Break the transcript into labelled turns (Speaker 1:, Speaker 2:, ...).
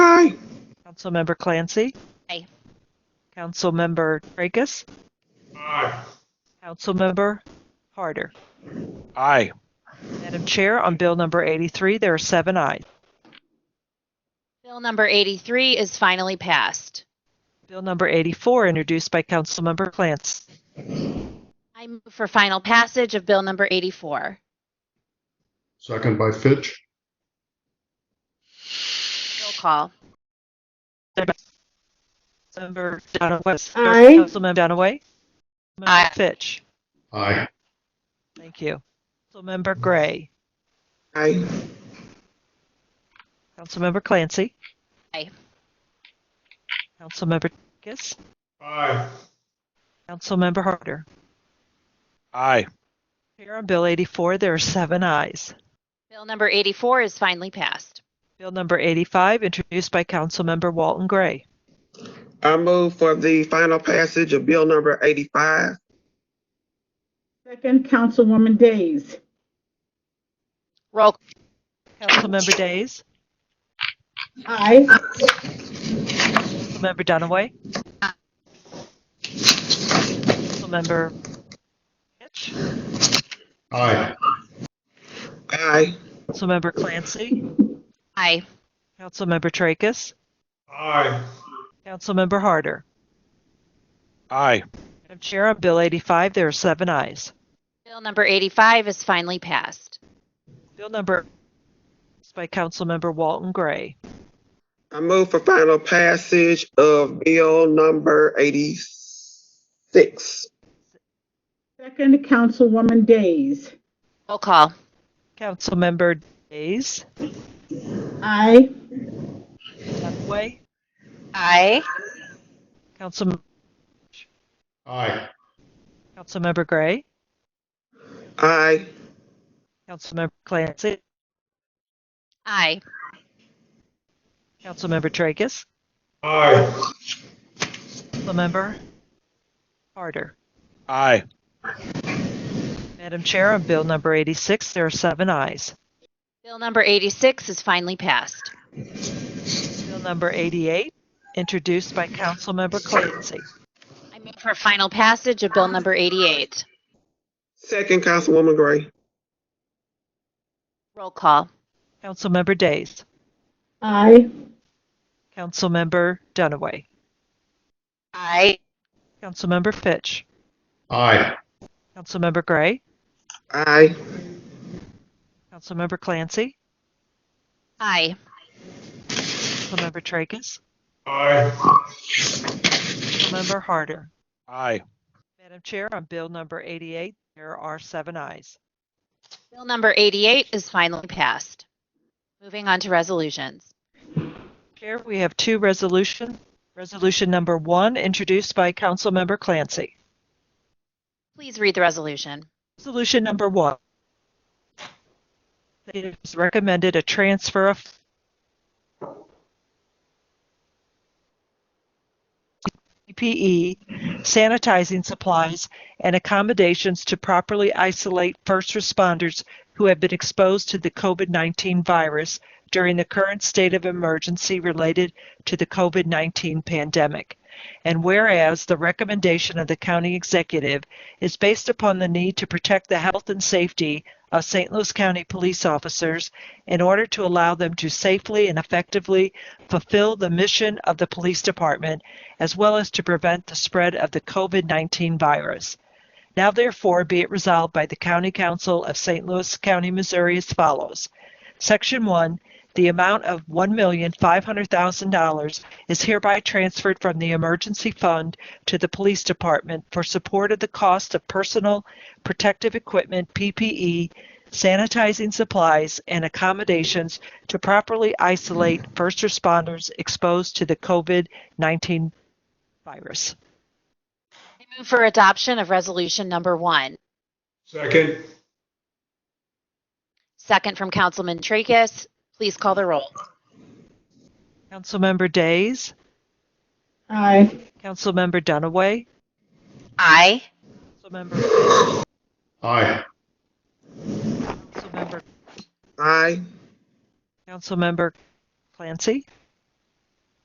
Speaker 1: Councilmember Clancy.
Speaker 2: Aye.
Speaker 1: Councilmember Tracus.
Speaker 3: Aye.
Speaker 1: Councilmember Harder.
Speaker 3: Aye.
Speaker 1: Madam Chair, on Bill number 83, there are seven ayes.
Speaker 2: Bill number 83 is finally passed.
Speaker 1: Bill number 84, introduced by Councilmember Clancy.
Speaker 2: I move for final passage of Bill number 84.
Speaker 4: Second by Fitch.
Speaker 2: Roll call.
Speaker 1: Councilmember Dunaway.
Speaker 5: Aye.
Speaker 1: Councilmember Dunaway. Councilmember
Speaker 2: Aye.
Speaker 1: Fitch.
Speaker 4: Aye.
Speaker 1: Thank you. Councilmember Gray.
Speaker 5: Aye.
Speaker 1: Councilmember Clancy.
Speaker 2: Aye.
Speaker 1: Councilmember Tracus.
Speaker 3: Aye.
Speaker 1: Councilmember Harder.
Speaker 3: Aye.
Speaker 1: Here on Bill 84, there are seven ayes.
Speaker 2: Bill number 84 is finally passed.
Speaker 1: Bill number 85, introduced by Councilmember Walton Gray.
Speaker 5: I move for the final passage of bill number eighty-five.
Speaker 6: Second, Councilwoman Days.
Speaker 2: Roll,
Speaker 1: Councilmember Days.
Speaker 6: Aye.
Speaker 1: Councilmember Dunaway. Councilmember Fitch.
Speaker 4: Aye.
Speaker 5: Aye.
Speaker 1: Councilmember Clancy.
Speaker 2: aye.
Speaker 1: Councilmember Tracus.
Speaker 3: Aye.
Speaker 1: Councilmember Harder.
Speaker 3: Aye.
Speaker 1: Madam Chair, on Bill 85, there are seven ayes.
Speaker 2: Bill number 85 is finally passed.
Speaker 1: Bill number is by Councilmember Walton Gray.
Speaker 5: I move for final passage of bill number eighty-six.
Speaker 6: Second, Councilwoman Days.
Speaker 2: Roll call.
Speaker 1: Councilmember Days.
Speaker 6: Aye.
Speaker 1: Dunaway.
Speaker 2: Aye.
Speaker 1: Council,
Speaker 4: Aye.
Speaker 1: Councilmember Gray.
Speaker 5: Aye.
Speaker 1: Councilmember Clancy.
Speaker 2: Aye.
Speaker 1: Councilmember Tracus.
Speaker 3: Aye.
Speaker 1: Councilmember Harder.
Speaker 3: Aye.
Speaker 1: Madam Chair, on Bill number 86, there are seven ayes.
Speaker 2: Bill number 86 is finally passed.
Speaker 1: Bill number 88, introduced by Councilmember Clancy.
Speaker 2: I move for final passage of Bill number 88.
Speaker 5: Second, Councilwoman Gray.
Speaker 2: Roll call.
Speaker 1: Councilmember Days.
Speaker 6: Aye.
Speaker 1: Councilmember Dunaway.
Speaker 2: Aye.
Speaker 1: Councilmember Fitch.
Speaker 4: Aye.
Speaker 1: Councilmember Gray.
Speaker 5: Aye.
Speaker 1: Councilmember Clancy.
Speaker 2: Aye.
Speaker 1: Councilmember Tracus.
Speaker 3: Aye.
Speaker 1: Councilmember Harder.
Speaker 3: Aye.
Speaker 1: Madam Chair, on Bill number 88, there are seven ayes.
Speaker 2: Bill number 88 is finally passed. Moving on to resolutions.
Speaker 1: Chair, we have two resolutions. Resolution number one, introduced by Councilmember Clancy.
Speaker 2: Please read the resolution.
Speaker 1: Resolution number one. It is recommended a transfer of PPE, E, sanitizing supplies, and accommodations to properly isolate first responders who have been exposed to the COVID-19 virus during the current state of emergency related to the COVID-19 pandemic. And whereas the recommendation of the county executive is based upon the need to protect the health and safety of St. Louis County police officers in order to allow them to safely and effectively fulfill the mission of the police department as well as to prevent the spread of the COVID 19 virus. Now, therefore, be it resolved by the County Council of St. Louis County, Missouri as follows Section 1 the amount of $1,500,000 is hereby transferred from the emergency fund to the police department for support of the cost of personal protective equipment, PPE, sanitizing supplies, and accommodations to properly isolate first responders exposed to the COVID-19 virus.
Speaker 2: I move for adoption of resolution number one.
Speaker 3: Second.
Speaker 2: Second from Councilman Tracus. Please call the roll.
Speaker 1: Councilmember Days,
Speaker 6: Aye.
Speaker 1: Councilmember Dunaway,
Speaker 2: Aye.
Speaker 1: Councilmember,
Speaker 4: Aye.
Speaker 1: Councilmember,
Speaker 5: Aye.
Speaker 1: Councilmember Clancy,